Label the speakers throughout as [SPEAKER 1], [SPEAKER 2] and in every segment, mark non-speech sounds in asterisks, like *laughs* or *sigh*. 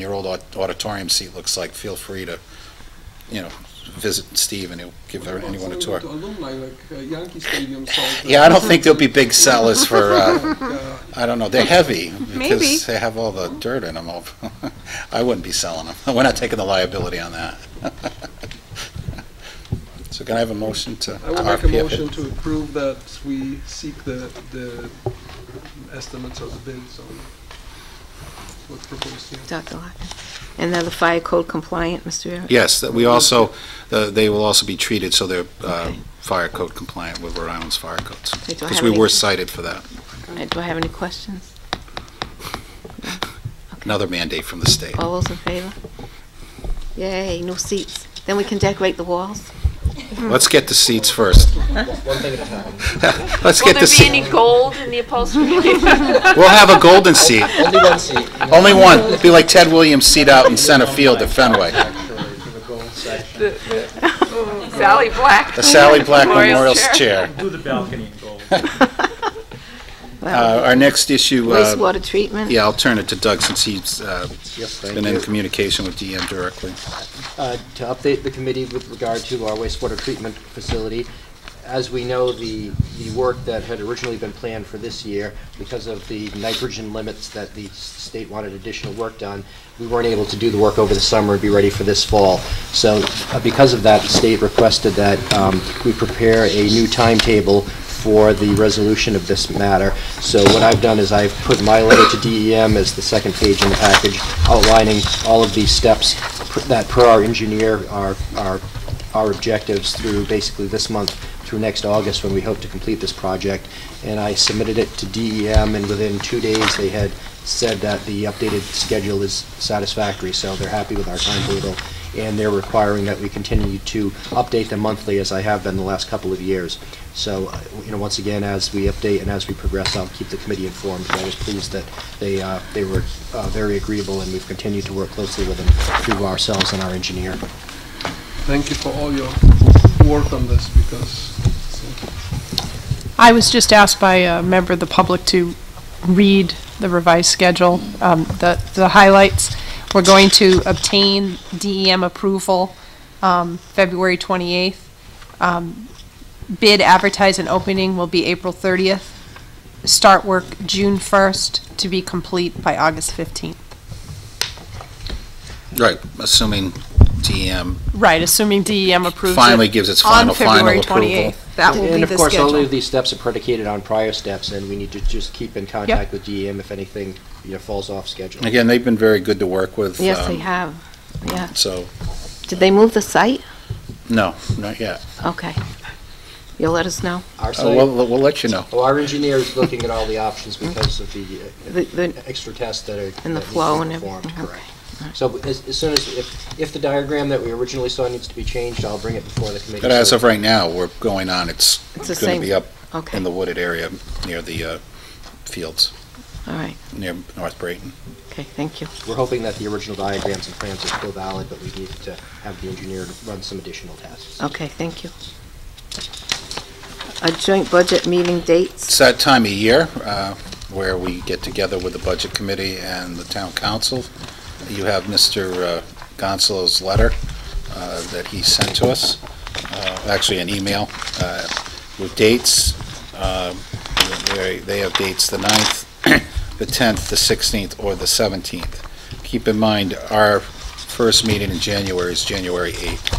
[SPEAKER 1] your old aud- auditorium seat looks like, feel free to, you know, visit Steve and he'll give
[SPEAKER 2] What about
[SPEAKER 1] anyone a
[SPEAKER 2] some
[SPEAKER 1] tour.
[SPEAKER 2] of the Alumni, like uh, Yankee Stadium sold.
[SPEAKER 1] Yeah, I don't think there'll be big sellers for, uh,
[SPEAKER 3] *laughs*
[SPEAKER 2] Uh,
[SPEAKER 1] I don't know, they're heavy.
[SPEAKER 3] Maybe.
[SPEAKER 1] Because they have all the dirt in them. I'll- *laughs* I wouldn't be selling them. We're not taking the liability on that. *laughs* So can I have a motion to?
[SPEAKER 2] I will make a
[SPEAKER 1] RPF?
[SPEAKER 2] motion to approve that we seek the, the estimates or the bids on what's proposed here.
[SPEAKER 3] Dr. Larkin. And then the fire code compliant, Mr. Barrett?
[SPEAKER 1] Yes, that we also, uh, they will also be treated so they're uh,
[SPEAKER 3] Okay.
[SPEAKER 1] fire code compliant with Rhode Island's fire codes.
[SPEAKER 3] Okay, do I
[SPEAKER 1] Because
[SPEAKER 3] have
[SPEAKER 1] we
[SPEAKER 3] any-
[SPEAKER 1] were cited for that.
[SPEAKER 3] Uh, Do I have any questions?
[SPEAKER 1] Another mandate from the state.
[SPEAKER 3] All those in favor? Yay, new seats. Then we can decorate the walls.
[SPEAKER 1] Let's get the seats first.
[SPEAKER 4] One thing at a time.
[SPEAKER 1] *laughs* Let's
[SPEAKER 5] Will
[SPEAKER 1] get
[SPEAKER 5] there
[SPEAKER 1] the
[SPEAKER 5] be
[SPEAKER 1] seat.
[SPEAKER 5] any gold in the upholstery?
[SPEAKER 1] We'll have a golden seat.
[SPEAKER 4] Only one seat.
[SPEAKER 1] Only one. It'll Be like Ted Williams' seat out in center field at Fenway.
[SPEAKER 4] Actually, for the gold section.
[SPEAKER 5] Sally Black.
[SPEAKER 1] The Sally Black
[SPEAKER 5] Memorial
[SPEAKER 1] Memorial
[SPEAKER 5] Chair.
[SPEAKER 1] Chair.
[SPEAKER 6] Do the balcony in gold.
[SPEAKER 3] Well,
[SPEAKER 1] Uh, Our next issue, uh,
[SPEAKER 3] Wastewater treatment?
[SPEAKER 1] yeah, I'll turn it to Doug since he's uh,
[SPEAKER 4] Yep, thank
[SPEAKER 1] been in
[SPEAKER 4] you.
[SPEAKER 1] communication with DM directly.
[SPEAKER 4] Uh, To update the committee with regard to our wastewater treatment facility, as we know, the, the work that had originally been planned for this year, because of the nitrogen limits that the s- state wanted additional work done, we weren't able to do the work over the summer and be ready for this fall. So uh, because of that, the state requested that um, we prepare a new timetable for the resolution of this matter. So what I've done is I've put my letter to DEM as the second page in the package, outlining all of these steps pr- that per our engineer are, are our objectives through basically this month through next August, when we hope to complete this project. And I submitted it to DEM, and within two days, they had said that the updated schedule is satisfactory, so they're happy with our timetable. And they're requiring that we continue to update them monthly, as I have been the last couple of years. So, uh, you know, once again, as we update and as we progress, I'll keep the committee informed. But I was pleased that they, uh, they were uh, very agreeable, and we've continued to work closely with them through ourselves and our engineer.
[SPEAKER 2] Thank you for all your work on this because it's
[SPEAKER 7] I was just asked by a member of the public to read the revised schedule, um, the the highlights. We're going to obtain DEM approval um, February 28th. Um, Bid advertise and opening will be April 30th. Start work June 1st to be complete by August 15th.
[SPEAKER 1] Right, assuming DM
[SPEAKER 7] Right, assuming DEM approves it.
[SPEAKER 1] finally gives its final, final
[SPEAKER 7] On February
[SPEAKER 1] approval.
[SPEAKER 7] 28th. That will be
[SPEAKER 4] And of
[SPEAKER 7] the
[SPEAKER 4] course, all
[SPEAKER 7] schedule.
[SPEAKER 4] of these steps are predicated on prior steps, and we need to just keep in contact with DEM if anything, you know, falls off schedule.
[SPEAKER 1] Again, they've been very good to work with.
[SPEAKER 3] Yes, they
[SPEAKER 1] um,
[SPEAKER 3] have. Yeah.
[SPEAKER 1] So,
[SPEAKER 3] Did they move the site?
[SPEAKER 1] no, not yet.
[SPEAKER 3] Okay. You'll let us know?
[SPEAKER 4] Our
[SPEAKER 1] Uh, We'll,
[SPEAKER 4] site,
[SPEAKER 1] we'll let you know.
[SPEAKER 4] well, our engineer is looking at all the options
[SPEAKER 7] Mm.
[SPEAKER 4] because of the uh,
[SPEAKER 3] The- the-
[SPEAKER 4] extra tests that are.
[SPEAKER 3] And the
[SPEAKER 4] that need to be
[SPEAKER 3] flow and
[SPEAKER 4] performed,
[SPEAKER 3] everything, okay.
[SPEAKER 4] correct. So as as soon as, if, if the diagram that we originally saw needs to be changed, I'll bring it before the committee.
[SPEAKER 1] But as
[SPEAKER 4] so-
[SPEAKER 1] of right now, we're going on, it's
[SPEAKER 3] It's the
[SPEAKER 1] going to
[SPEAKER 3] same,
[SPEAKER 1] be up
[SPEAKER 3] okay,
[SPEAKER 1] in the
[SPEAKER 3] all
[SPEAKER 1] wooded area near the uh, fields,
[SPEAKER 3] right.
[SPEAKER 1] near North Brayton.
[SPEAKER 3] Okay, thank you.
[SPEAKER 4] We're hoping that the original diagrams and plans are still valid, but we need to have the engineer run some additional tests.
[SPEAKER 3] Okay, thank you. A joint budget meeting dates?
[SPEAKER 1] It's that time of year uh, where we get together with the Budget Committee and the Town Council. You have Mr. uh, Gonzalo's letter uh, that he sent to us, uh, actually an email uh, with dates. Um, They they have dates the 9th, *coughs* the 10th, the 16th, or the 17th. Keep in mind, our first meeting in January is January 8th,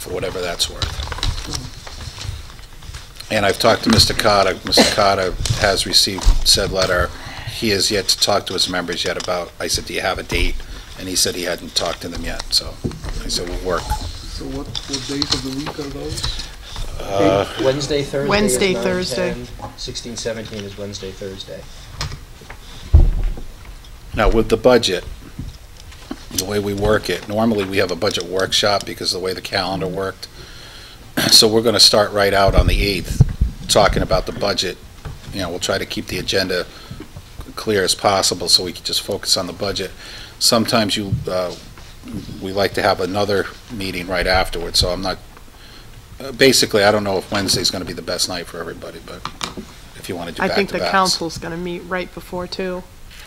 [SPEAKER 1] for whatever that's worth. And I've talked to Mr. Cotta. Mr. Cotta has received said letter. He has yet to talk to his members yet about, I said, do you have a date? And he said he hadn't talked to them yet, so I said, we'll work.
[SPEAKER 2] So what, what days of the week are those?
[SPEAKER 4] Wednesday, Thursday. is
[SPEAKER 7] Wednesday,
[SPEAKER 4] 9,
[SPEAKER 7] Thursday.
[SPEAKER 4] 10, 16, 17 is Wednesday, Thursday.
[SPEAKER 1] Now, with the budget, the way we work it, normally we have a budget workshop because of the way the calendar worked. *clears throat* So we're going to start right out on the 8th, talking about the budget. You know, we'll try to keep the agenda clear as possible so we can just focus on the budget. Sometimes you, uh, we like to have another meeting right afterwards, so I'm not, uh, basically, I don't know if Wednesday's going to be the best night for everybody, but if you want to do
[SPEAKER 7] I
[SPEAKER 1] back-to-backs.
[SPEAKER 7] think the council's going to meet right before, too.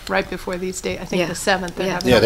[SPEAKER 7] right before these dates, I think
[SPEAKER 3] Yeah.
[SPEAKER 7] the 7th. they're
[SPEAKER 3] Yeah.
[SPEAKER 7] having a
[SPEAKER 1] Yeah,